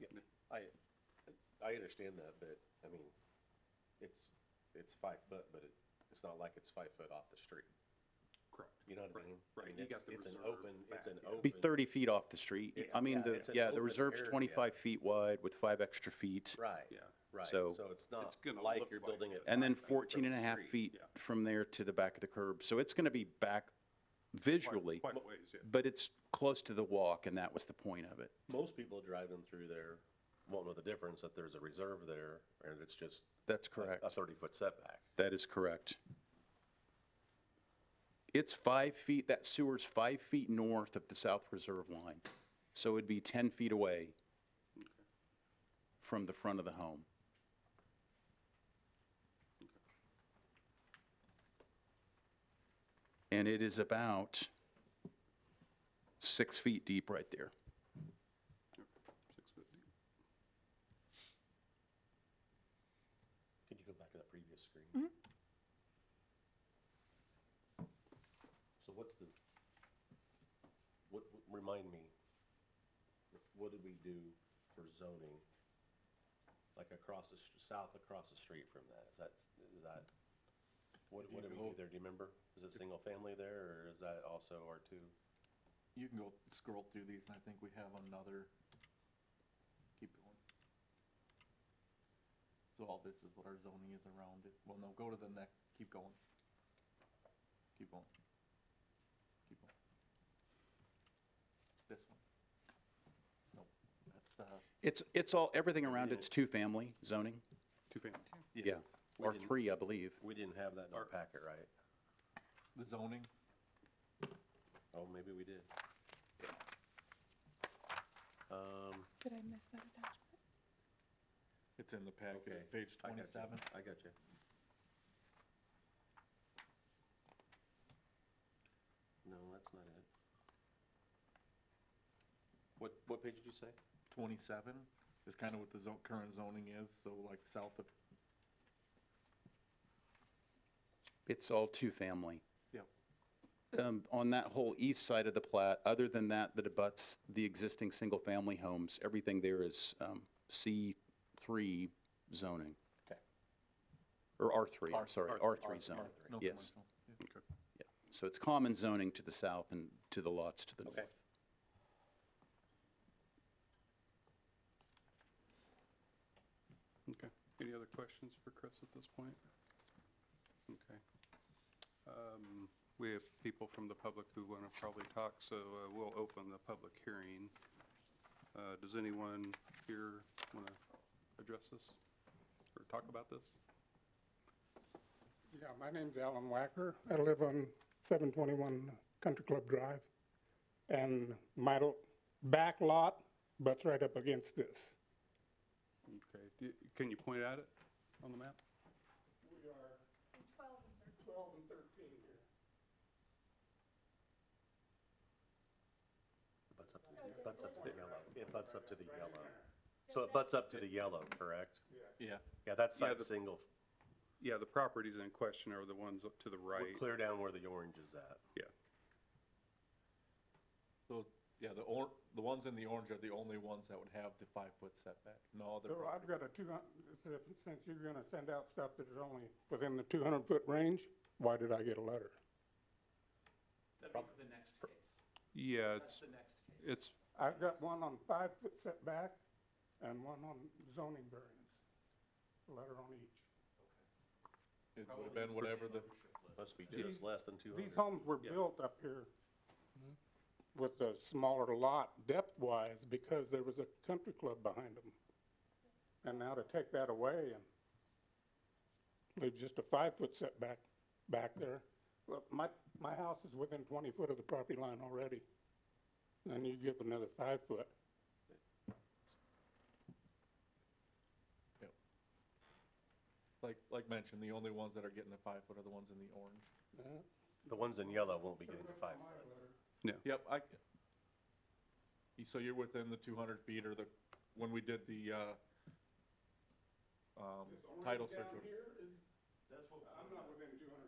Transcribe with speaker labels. Speaker 1: Yeah, I, I understand that, but, I mean, it's, it's five foot, but it, it's not like it's five foot off the street.
Speaker 2: Correct.
Speaker 1: You know what I
Speaker 2: Right,
Speaker 1: mean? I
Speaker 2: right,
Speaker 1: mean,
Speaker 2: you
Speaker 1: it's-
Speaker 2: got the
Speaker 1: It's an
Speaker 2: reserve
Speaker 1: open, it's
Speaker 2: back,
Speaker 1: an
Speaker 2: yeah.
Speaker 1: open.
Speaker 3: Be thirty feet off the street.
Speaker 1: It's-
Speaker 3: I mean,
Speaker 1: yeah,
Speaker 3: the,
Speaker 1: it's an
Speaker 3: yeah, the
Speaker 1: open
Speaker 3: reserve's
Speaker 1: area.
Speaker 3: twenty-five feet wide with five extra feet.
Speaker 1: Right,
Speaker 2: Yeah.
Speaker 1: right. So
Speaker 3: So-
Speaker 1: it's not
Speaker 2: It's gonna
Speaker 1: like
Speaker 2: look
Speaker 1: you're
Speaker 2: like
Speaker 1: building it.
Speaker 2: that.
Speaker 3: And then
Speaker 1: five feet from
Speaker 3: 14 and a
Speaker 1: the
Speaker 3: half
Speaker 1: street.
Speaker 3: feet
Speaker 2: yeah.
Speaker 3: from there to the back of the curb. So it's gonna be back
Speaker 2: Quite-
Speaker 3: visually,
Speaker 2: Quite a ways, yeah.
Speaker 3: but it's close to the walk and that was the point of it.
Speaker 1: Most people driving through there won't know the difference that there's a reserve there and it's just
Speaker 3: That's
Speaker 1: a-
Speaker 3: correct.
Speaker 1: a thirty foot setback.
Speaker 3: That is correct. It's five feet, that sewer's five feet north of the south reserve line. So it'd be 10 feet away from the front of the home. And it is about six feet deep right there.
Speaker 2: Six foot deep.
Speaker 1: Could you go back to that previous screen? So what's the, what, what- remind me, wh- what did we do for zoning? Like across the, str- south across the street from that, is that, s- is that, what, what did we do there, do you remember? Is it single family there, or is that also R two?
Speaker 4: You can go scroll through these, and I think we have another, keep going. So all this is what our zoning is around it, well, no, go to the next, keep going. Keep going. Keep going. This one. Nope, that's the,
Speaker 3: It's, it's all, everything around it's two-family zoning.
Speaker 2: Two family.
Speaker 3: Yeah,
Speaker 4: yes,
Speaker 1: We
Speaker 3: or
Speaker 1: didn't-
Speaker 3: three, I believe.
Speaker 1: We didn't have that in our packet, right?
Speaker 4: the zoning,
Speaker 1: Oh, maybe we did. Um,
Speaker 5: Did I miss that attachment?
Speaker 4: it's in the
Speaker 1: Okay,
Speaker 4: packet, It's page
Speaker 1: I got you.
Speaker 4: twenty-seven.
Speaker 1: I got you. No, that's not it. What, what page did you say?
Speaker 4: 27 is kind of what the zo- current zoning is, so like south of,
Speaker 3: It's all two-family.
Speaker 4: yep,
Speaker 3: um, on that whole east side of the plat, other than that, that abuts the existing single-family homes, everything there is um, C3 zoning,
Speaker 1: Okay.
Speaker 3: or R3,
Speaker 4: R-
Speaker 3: I'm sorry, R3 zoning.
Speaker 4: no
Speaker 3: Yes,
Speaker 4: commercial. Yeah.
Speaker 3: yeah. So it's common zoning to the south and to the lots to the north.
Speaker 1: Okay.
Speaker 2: Okay. Any other questions for Chris at this point? Okay. Um, We have people from the public who want to probably talk, so uh, we'll open the public hearing. Uh, Does anyone here want to address this or talk about this?
Speaker 6: Yeah, my name's Alan Wacker. I live on 721 Country Club Drive. And my l- back lot butts right up against this.
Speaker 2: Okay, Do- can you point at it on the map?
Speaker 6: We are. 12 and 13 here.
Speaker 1: Butts up to the, butts up to the yellow. It butts up to the yellow. So it butts up to the yellow, correct?
Speaker 4: Yeah,
Speaker 1: Yeah, that's
Speaker 2: Yeah,
Speaker 1: side
Speaker 2: the-
Speaker 1: single.
Speaker 2: Yeah, the properties in question are the ones up to the
Speaker 1: We're
Speaker 2: right.
Speaker 1: clear down where the orange is at.
Speaker 2: Yeah,
Speaker 4: so, yeah, the or, the ones in the orange are the only ones that would have the five-foot setback, no other
Speaker 6: So I've
Speaker 4: property.
Speaker 6: got a 200, since you're going to send out stuff that is only within the 200-foot range, why did I get a letter?
Speaker 2: yeah, it's, it's,
Speaker 6: I've got one on five-foot setback and one on zoning variance. A letter on each.
Speaker 4: It would have been whatever the,
Speaker 1: Must be just less than two
Speaker 6: These
Speaker 1: hundred.
Speaker 6: homes were built up here with a smaller lot depth-wise because there was a country club behind them. And now to take that away and leave just a five-foot setback back there. Well, my, my house is within twenty foot of the property line already. And you give another five foot.
Speaker 4: like, like mentioned, the only ones that are getting the five-foot are the ones in the orange.
Speaker 6: Uh,
Speaker 1: The ones in yellow won't be getting to five foot.
Speaker 2: no,
Speaker 4: Yep, I, You- so you're within the two hundred feet or the, when we did the, uh, um, title search. order.
Speaker 6: I'm not within two hundred